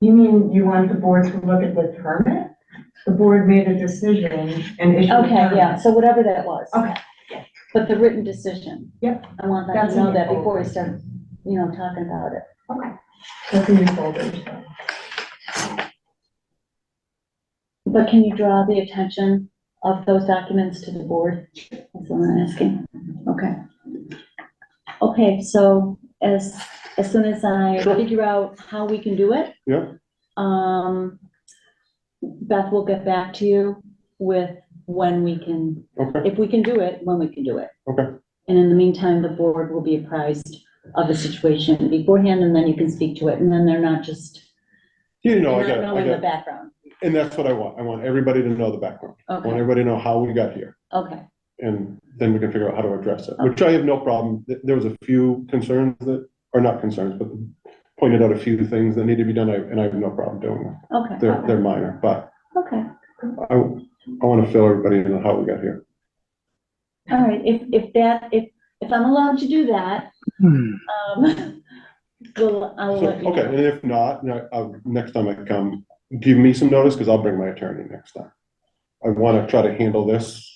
You mean you want the board to look at the permit? The board made a decision and issued a Okay, yeah, permit. so whatever that was. Okay, yeah. But the written decision. Yep. I want them That's to in know your that before folder. we start, you know, talking about it. Okay. That's in your folder, so. But can you draw the attention of those documents to the board? That's what I'm asking. Okay. Okay, so as, as soon as I Sure. figure out how we can do it. Yeah. Um, Beth will get back to you with when we can Okay, if we can do it, when we can do it. Okay. And in the meantime, the board will be apprised of the situation beforehand, and then you can speak to it, and then they're not just, you know, I not got, it, I knowing the got, it. background. and that's what I want, I want everybody to know the background, I want Okay, everybody to know how we got here, okay, and then we can figure out how to address it, which I have no problem, Th- there was a few concerns that, or not concerns, but pointed out a few things that need to be done, I- and I have no problem doing them, okay, they're, they're minor, but okay. I, I want to fill everybody in on how we got here. All right, if, if that, if, if I'm allowed to do that, um, well, I'll So, let you. okay, and if not, no, I'll- next time I come, give me some notice, because I'll bring my attorney next time. I want to try to handle this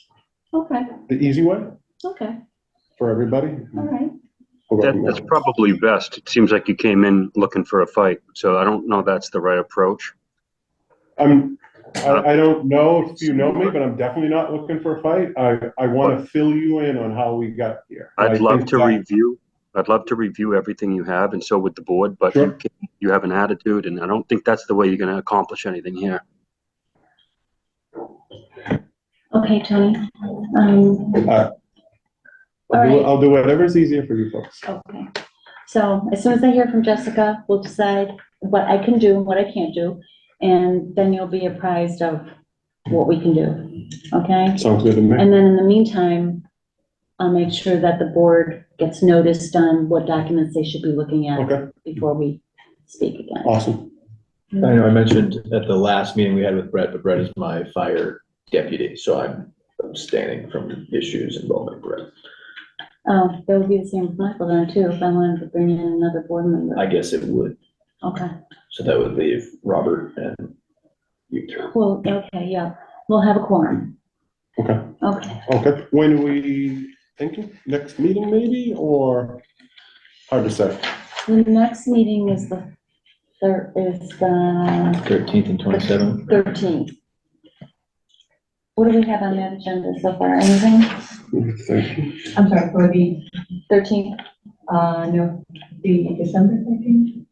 Okay, the easy way okay, for everybody. all Mm-hmm. right. We'll go That, from that's there. probably best. It seems like you came in looking for a fight, so I don't know that's the right approach. I'm, I, I don't know if you know me, but I'm definitely not looking for a fight. I, I want to fill you in on how we got here. I I'd love think to that- review, I'd love to review everything you have and so would the board, but Sure. you can- you have an attitude and I don't think that's the way you're gonna accomplish anything here. Okay, Tony, um, Uh, I'll do, Alright. I'll do whatever's easier for you folks. Okay, so as soon as I hear from Jessica, we'll decide what I can do and what I can't do, and then you'll be apprised of what we can do, okay? Sounds good to me. And then in the meantime, I'll make sure that the board gets noticed on what documents they should be looking at Okay, before we speak again. awesome. I know I mentioned at the last meeting we had with Brett, but Brett is my fire deputy, so I'm abstaining from issues involving Brett. Oh, that would be the same with Michael then too, if I wanted to bring in another board member. I guess it would, Okay, so that would leave Robert and you two. well, okay, yeah, we'll have a quorum, Okay, okay. okay. When we thinking, next meeting maybe, or? Hard to say. The next meeting is the, thir is the Thirteenth and twenty-seventh. thirteenth. What do we have on the agenda so far, anything? Thank you. I'm sorry, for the, Thirteenth, uh, no, the December thirteenth,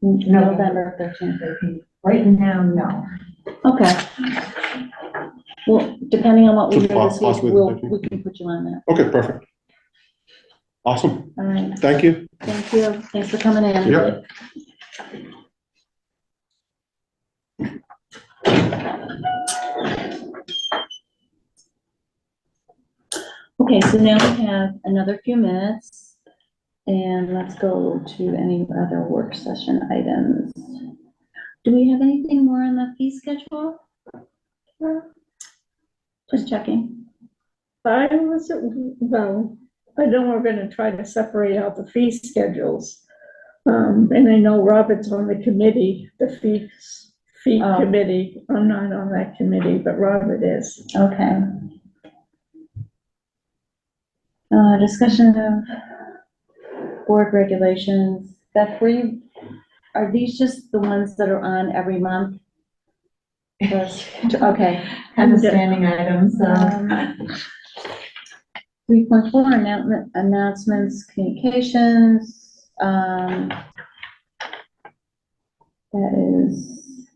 November thirteenth, thirteenth, right now, no. okay. Well, depending on what we do So this week, possibly the we'll, 13th. we can put you on that, Okay, perfect. Awesome. all right, Thank you. thank you, thanks for coming in. Yeah. Okay, so now we have another few minutes, and let's go to any other work session items. Do we have anything more on the fee schedule? Just checking. I was, well, I know we're gonna try to separate out the fee schedules. Um, and I know Robert's on the committee, the fees, fee Oh. committee. I'm not on that committee, but Robert is. Okay. Uh, discussion of board regulations. Beth, were you, are these just the ones that are on every month? Just- Okay. Kind of standing items, uh, Um, Three point four, announcement, announcements, communications, um. That is.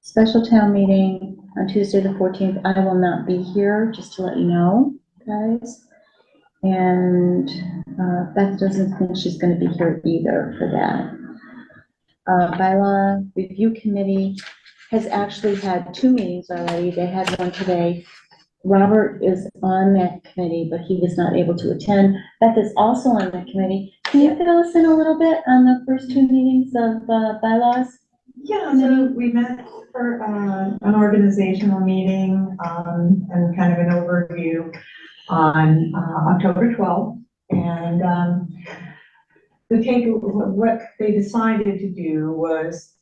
Special town meeting on Tuesday, the fourteenth, I will not be here, just to let you know, guys. And, uh, Beth doesn't think she's gonna be here either for that. Uh, bylaw review committee has actually had two meetings already, they had one today, Robert is on that committee, but he was not able to attend. Beth is also on that committee. Can you fill us in a little bit on the first two meetings of uh, bylaws? Yeah, so we met for, uh, an organizational meeting, um, and kind of an overview on, uh, October twelfth. And, um, the take, what they decided to do was